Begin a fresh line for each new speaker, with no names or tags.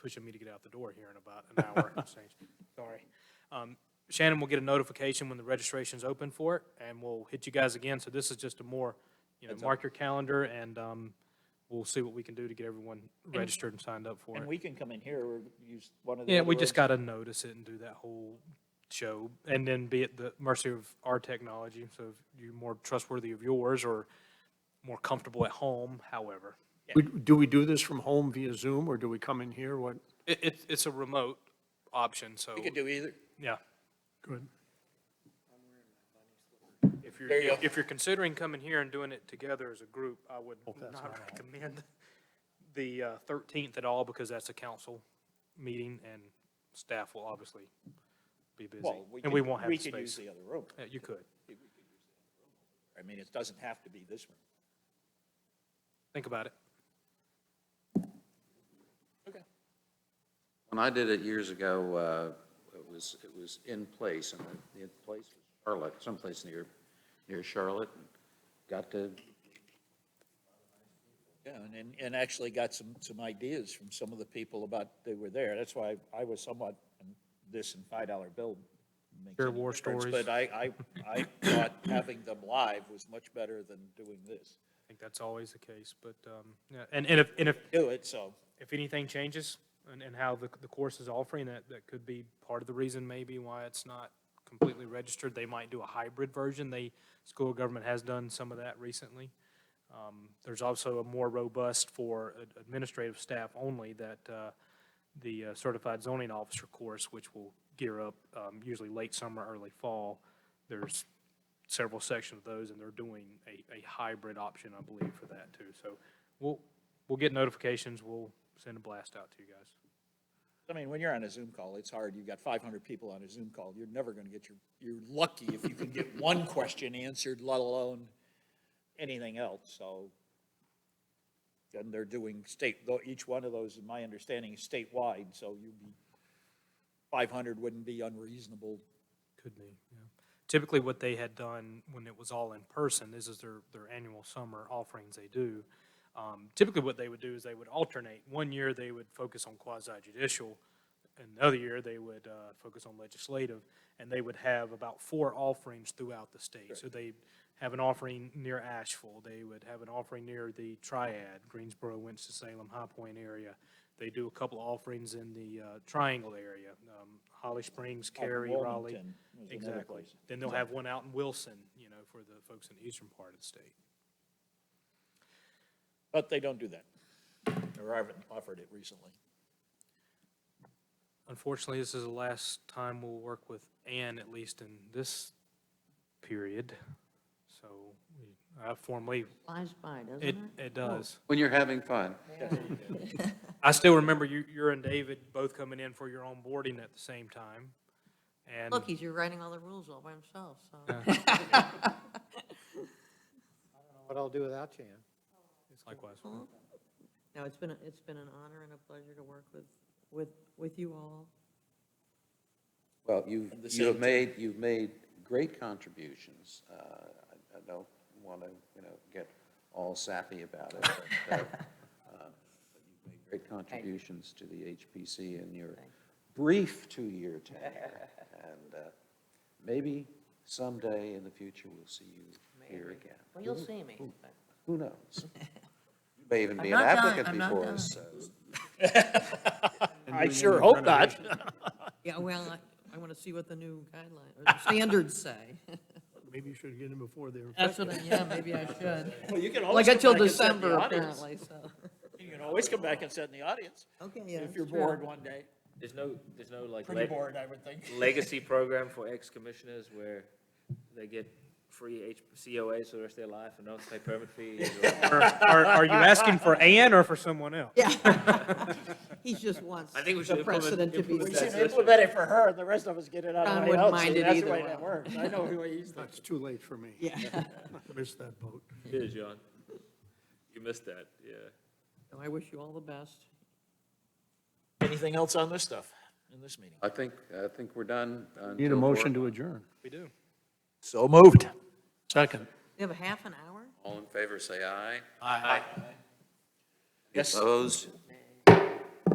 pushing me to get out the door here in about an hour and change. Sorry. Um, Shannon will get a notification when the registration's open for it, and we'll hit you guys again. So this is just a more, you know, mark your calendar, and um, we'll see what we can do to get everyone registered and signed up for
And
it.
we can come in here or use one of the.
Yeah,
other
we just got
rooms.
to notice it and do that whole show, and then be at the mercy of our technology. So if you're more trustworthy of yours or more comfortable at home, however.
We- Do we do this from home via Zoom, or do we come in here? What,
It, it's, it's a remote option, so,
We could do either.
yeah.
good.
If you're,
There you
if-
go.
if you're considering coming here and doing it together as a group, I would not recommend the uh, 13th at all because that's a council meeting and staff will obviously be busy.
Well,
And we
could-
won't have
We
the
could use
space.
the other room.
Yeah, You could.
I mean, it doesn't have to be this room.
Think about it.
When I did it years ago, uh, it was, it was in place, and the- the place was Charlotte, someplace near, near Charlotte. Got to,
Yeah, and- and, and actually got some, some ideas from some of the people about, they were there. That's why I was somewhat, and this and five dollar bill. makes
Sure,
any
war
difference,
stories.
But I, I, I thought having them live was much better than doing this.
I think that's always the case, but, um, yeah, and, and if, and if,
Do it, so,
if anything changes and, and how the, the course is offering, that, that could be part of the reason maybe why it's not completely registered. They might do a hybrid version. They, school of government has done some of that recently. Um, There's also a more robust for ad- administrative staff only that uh, the uh, certified zoning officer course, which will gear up um, usually late summer, early fall. There's several sections of those, and they're doing a, a hybrid option, I believe, for that too. So we'll, we'll get notifications, we'll send a blast out to you guys.
I mean, when you're on a Zoom call, it's hard. You've got five hundred people on a Zoom call. You're never gonna get your, you're lucky if you can get one question answered, let alone anything else, so. And they're doing state, though, each one of those, in my understanding, is statewide, so you'd be, five hundred wouldn't be unreasonable.
Could be, yeah. Typically, what they had done when it was all in person, this is their, their annual summer offerings they do. Um, Typically, what they would do is they would alternate. One year, they would focus on quasi judicial, and the other year, they would uh, focus on legislative, and they would have about four offerings throughout the state. So they have an offering near Asheville, they would have an offering near the Triad, Greensboro, Winston-Salem, High Point area. They do a couple of offerings in the uh, Triangle area, um, Holly Springs, Cary, Raleigh.
Wilmington was another
Exactly.
place.
Then they'll have one out in Wilson, you know, for the folks in the eastern part of the state.
But they don't do that, or I haven't offered it recently.
Unfortunately, this is the last time we'll work with Ann, at least in this period. So we- I formally,
Flies by, doesn't
it,
it?
it does.
when you're having fun.
I still remember you, you and David both coming in for your onboarding at the same time. And
Look, he's rewriting all the rules all by himself, so.
What I'll do without you, Ann.
likewise,
No, it's been, a- it's been an honor and a pleasure to work with, with, with you all.
Well, you've,
the
you have
same-
made, you've made great contributions. Uh, I I don't want to, you know, get all sappy about it, but uh, uh, but you've made great contributions to the HPC in your brief two-year tenure. And uh, maybe someday in the future, we'll see you here again.
Well, you'll see me. but-
Who knows? You may even be an
I'm not dying-
applicant
I'm not
before
dying.
us, so.
I sure hope not.
Yeah, well, I, I want to see what the new guidelines, or the standards say.
Maybe you should get in before they're.
That's what, I yeah, maybe I should.
Well, you can
Well, I
always come
got till
back and sit in the
December
audience.
apparently, so.
You can always come back and sit in the audience,
Okay, yeah.
if
that's
you're
true.
bored one day.
There's no, there's no like
Pretty
leg-
bored, I would think.
legacy program for ex-commissioners where they get free H- COAs for the rest of their life and don't pay permit fees. or-
Are, are- are you asking for Ann or for someone else?
Yeah. He just wants
I think we should
the
implement-
precedent to be
implement
We
that
should
set.
system.
implement it for her, and the rest of us get it out
John
of the way
wouldn't
else.
mind
See,
it
That's the
either
way
way.
that works. I know who he's thinking.
It's too late for me.
Yeah.
Missed that boat.
Yeah, John. You missed that, yeah.
So I wish you all the best.
Anything else on this stuff, in this meeting?
I think, I think we're done.
Need a motion to adjourn.
We do.
So moved.
Second.
You have a half an hour?
All in favor, say aye.
Yes.
Opposed?